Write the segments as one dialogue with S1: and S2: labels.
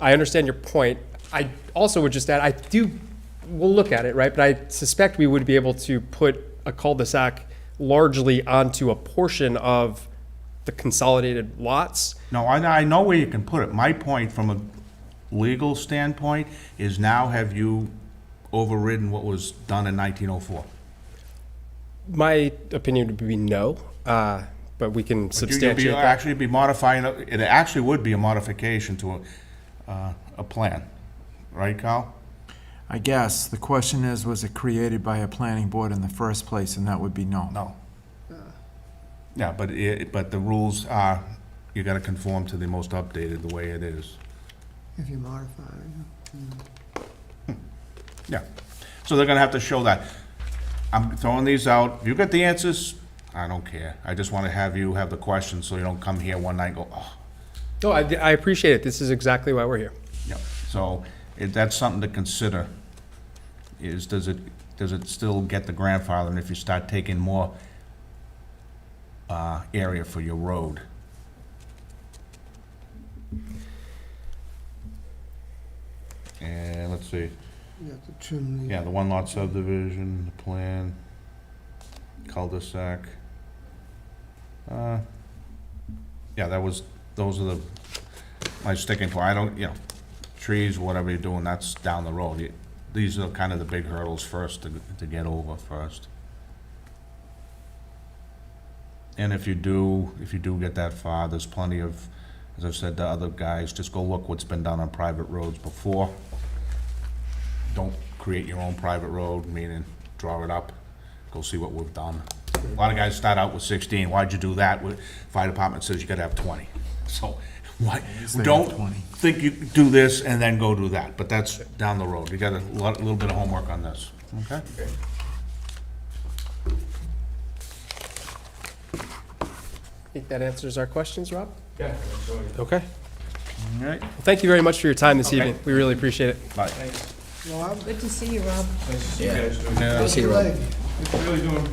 S1: I understand your point. I also would just add, I do, we'll look at it, right? But I suspect we would be able to put a cul-de-sac largely onto a portion of the consolidated lots.
S2: No, I, I know where you can put it. My point from a legal standpoint is now have you overridden what was done in nineteen oh four?
S1: My opinion would be no, uh, but we can substantiate
S2: You'd be,
S1: that.
S2: actually be modifying, a- it actually would be a modification to a, uh, a plan, right, Kyle?
S3: I guess, the question is, was it created by a planning board in the first place, and that would be no.
S2: No. Yeah, but it, but the rules are, you gotta conform to the most updated, the way it is.
S4: If you modify, it.
S2: Yeah, so they're gonna have to show that. I'm throwing these out, If you get the answers, I don't care. I just wanna have you have the questions, so you don't come here one night and go, oh.
S1: No, I, I appreciate it. This is exactly why we're here.
S2: Yep. So, if that's something to consider, is, does it, does it still get the grandfathering if you start taking more uh, area for your road? And, let's see.
S4: you have to trim the,
S2: Yeah, the one lot subdivision, the plan, cul-de-sac. Uh, Yeah, that was, those are the, my sticking point, I don't, you know, trees, whatever you're doing, that's down the road. You- These are kind of the big hurdles first to, to get over first. And if you do, if you do get that far, there's plenty of, as I've said to other guys, just go look what's been done on private roads before don't create your own private road, meaning draw it up, go see what we've done. A lot of guys start out with sixteen, why'd you do that? Well, Fire department says you gotta have twenty, so, why,
S3: they have
S2: don't
S3: 20.
S2: think you do this and then go do that, but that's down the road, you got a lot, little bit of homework on this, okay?
S1: I think that answers our questions, Rob?
S5: Yeah.
S1: Okay.
S2: All right.
S1: Well, Thank you very much for your time this
S2: Okay.
S1: evening. We really appreciate it.
S2: Bye.
S4: Rob,
S6: Good to see you, Rob.
S5: Nice to see you guys.
S2: Yeah.
S4: what's your leg?
S5: Really doing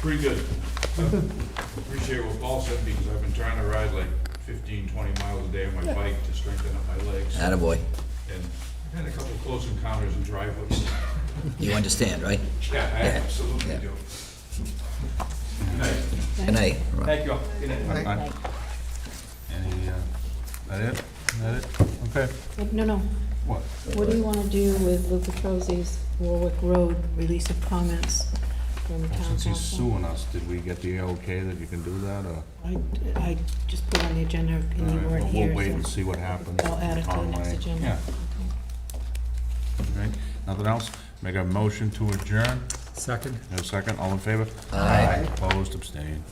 S5: pretty good. I Appreciate what Paul said because I've been trying to ride like 15, 20 miles a day on my bike to strengthen up my legs. And
S7: Attaboy.
S5: I've had a couple close encounters in driveways.
S7: You understand, right?
S5: Yeah, I absolutely do. Good night.
S7: Good night. Rob.
S5: Thank you all. Good night.
S2: Bye. Any, uh, that it? That it? Okay.
S6: No, no.
S2: What?
S6: What do you want to do with Luca Trozzi's Warwick Road release of comments from town
S2: Since he's
S6: council?
S2: suing us, did we get the okay that you can do that, or?
S6: I, I just put on the agenda and
S2: All right,
S6: you weren't
S2: well,
S6: here.
S2: We'll wait and
S6: so-
S2: see what happens.
S6: I'll add it to the
S2: on
S6: next
S2: my-
S6: agenda.
S2: Yeah. All right, nothing else? Make a motion to adjourn?
S3: Second?
S2: No second, all in favor?
S7: Aye.
S2: Opposed, abstained.